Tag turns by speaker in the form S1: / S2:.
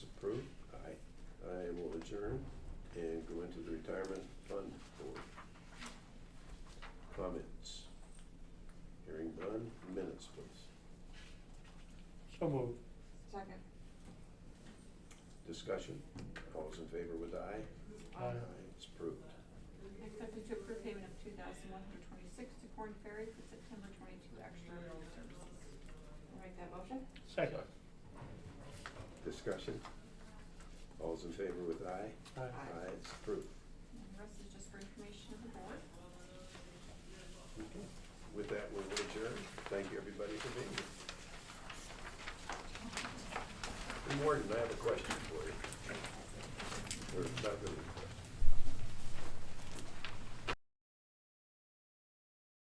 S1: Second.
S2: Discussion. All those in favor with aye?
S3: Aye.
S2: It's approved.
S1: Accepted to approve payment of two thousand one hundred twenty-six to Corn Ferry for September twenty-two extra food services. I'll make that motion.
S3: Second.
S2: Discussion. All those in favor with aye?
S3: Aye.
S2: Aye, it's approved.
S1: And the rest is just for information of the board.
S2: Okay. With that, we'll adjourn. Thank you, everybody, for being here. Warden, I have a question for you. Or not really.